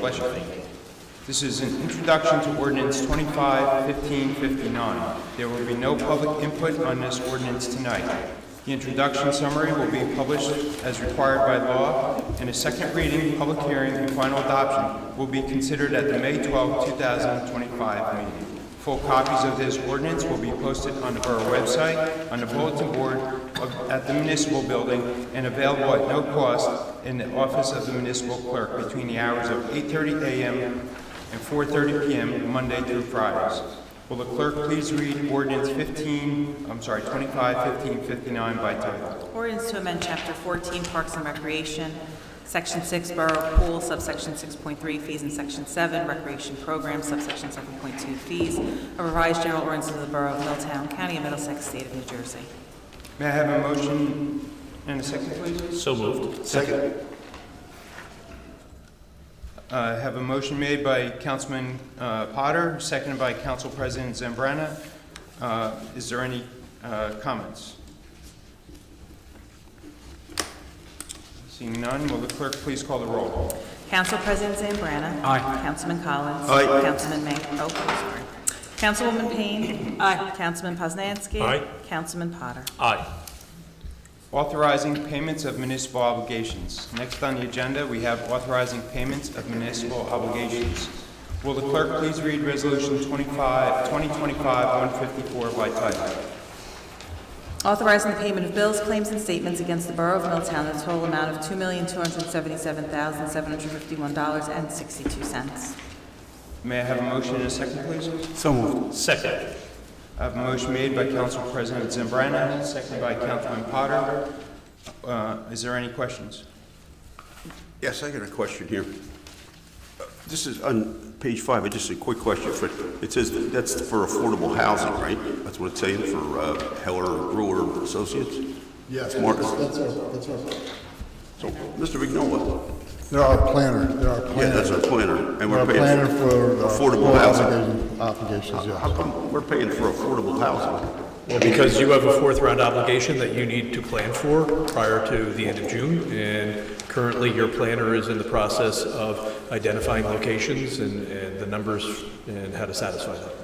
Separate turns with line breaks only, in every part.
Question. This is an introduction to ordinance 25-1559. There will be no public input on this ordinance tonight. The introduction summary will be published as required by law, and a second reading, public hearing, and final adoption will be considered at the May 12, 2025 meeting. Full copies of this ordinance will be posted on the Borough website, on the bulletin board, of- at the municipal building, and available at no cost in the office of the municipal clerk between the hours of 8:30 a.m. and 4:30 p.m., Monday through Fridays. Will the clerk please read ordinance 15, I'm sorry, 25, 15, 59 by title?
Ordinance to amend Chapter 14 Parks and Recreation, Section 6 Borough Pool, subsection 6.3 Fees, and Section 7 Recreation Program, subsection 7.2 Fees, a revised general ordinance of the Borough of Middletown, County of Middlesex, State of New Jersey.
May I have a motion and a second, please?
So moved.
Second.
Uh, I have a motion made by Councilman uh, Potter, seconded by Council President Zambrana. Uh, Is there any uh, comments? Seeing none, will the clerk please call the roll?
Council President Zambrana. Aye. Councilman Collins.
Aye.
Councilman May, oh, sorry. Councilwoman Payne. Aye. Councilman Poznanski.
Aye.
Councilman Potter.
Aye.
Authorizing payments of municipal obligations. Next on the agenda, we have authorizing payments of municipal obligations. Will the clerk please read Resolution 25 2025-154 by title?
Authorizing the payment of bills, claims, and statements against the Borough of Middletown in a total amount of $2,277,751.62.
May I have a motion and a second, please?
So moved.
Second.
I have a motion made by Council President Zambrana, seconded by Councilman Potter. Uh, Is there any questions?
Yes, I got a question here. Uh, This is on page five, I just a quick question for, it says that that's for affordable housing, right? That's what it's saying for uh, Heller Brewer Associates?
Yes,
Mark.
that's that's our, that's our,
So, Mr. Vignola,
they're our planner, they're our
yeah,
planner.
that's our planner, and
They're
we're
our
paying.
planner for. uh,
Affordable housing.
obligation- Obligations,
How
yeah.
come we're paying for affordable housing?
Because you have a fourth round obligation that you need to plan for prior to the end of June, and currently your planner is in the process of identifying locations and, and the numbers and how to satisfy that.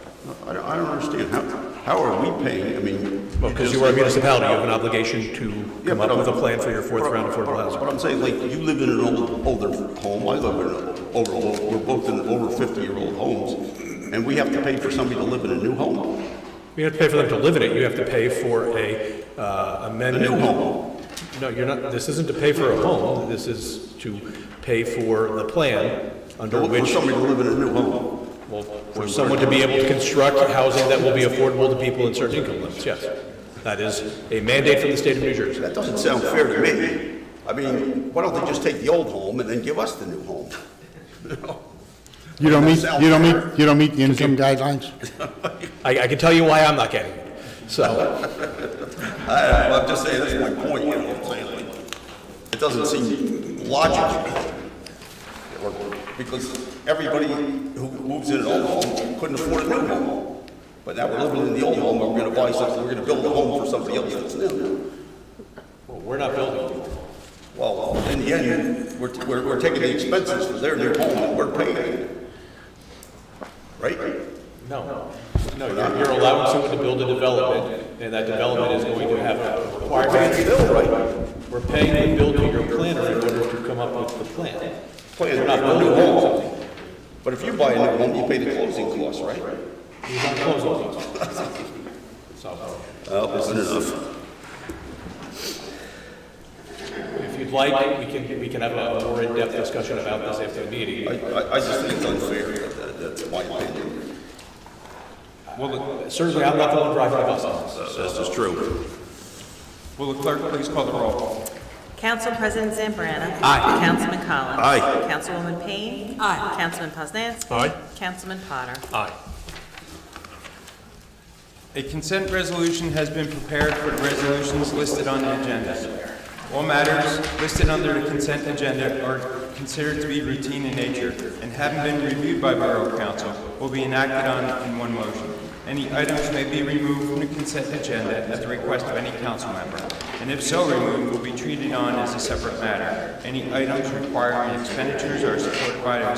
I don't, I don't understand, how, how are we paying, I mean.
Well, because you are a municipality, you have an obligation to
Yeah,
come
but uh,
up with a
I'm-
plan for your fourth round affordable
But
housing.
I'm saying, like, you live in an old, older home, I live in an over, we're both in over fifty-year-old homes, and we have to pay for somebody to live in a new home,
You have to pay for them to live in it, you have to pay for a uh,
a
amendment.
new home.
No, you're not, this isn't to pay for a home, this is to pay for the plan under
For for
which
somebody to live in a new home.
Well, for someone to be able to construct housing that will be affordable to people in certain income limits, yes. That is a mandate from the state of New Jersey.
That doesn't sound fair to me. I mean, why don't they just take the old home and then give us the new home?
You don't meet, you don't meet, you don't meet the income guidelines?
I, I can tell you why I'm not getting it. So,
I, I'm just saying, that's my point, you know what I'm saying? Like, It doesn't seem logical. Because everybody who moves in an old home couldn't afford a new home. But now we're living in the old home, and we're gonna buy something, we're gonna build a home for somebody else that's new.
well, we're not building.
Well, in the end, we're, we're, we're taking the expenses for their new home, and we're paying it. Right?
No. No, you're, you're allowing someone to build a development, and that development is going to have requirements. We're paying the builder, your planner, in order to come up with the plan.
Plan,
We're not
a
building
new home.
something.
But if you buy a new home, you pay the closing costs, right?
You have closing costs. So.
Well, isn't enough.
If you'd like, we can, we can have a more in-depth discussion about this after the
I,
meeting.
I, I just think it's unfair, That- that's my opinion.
Will the-
Certainly, I'm not the one driving the bus.
This is true.
will the clerk please call the roll?
Council President Zambrana. Aye. Councilman Collins.
Aye.
Councilwoman Payne. Aye. Councilman Poznanski.
Aye.
Councilman Potter.
Aye.
A consent resolution has been prepared for the resolutions listed on the agenda. All matters listed under the consent agenda are considered to be routine in nature and having been reviewed by Borough Council will be enacted on in one motion. Any items may be removed from the consent agenda at the request of any council member, and if so removed, will be treated on as a separate matter. Any items requiring expenditures are supported by a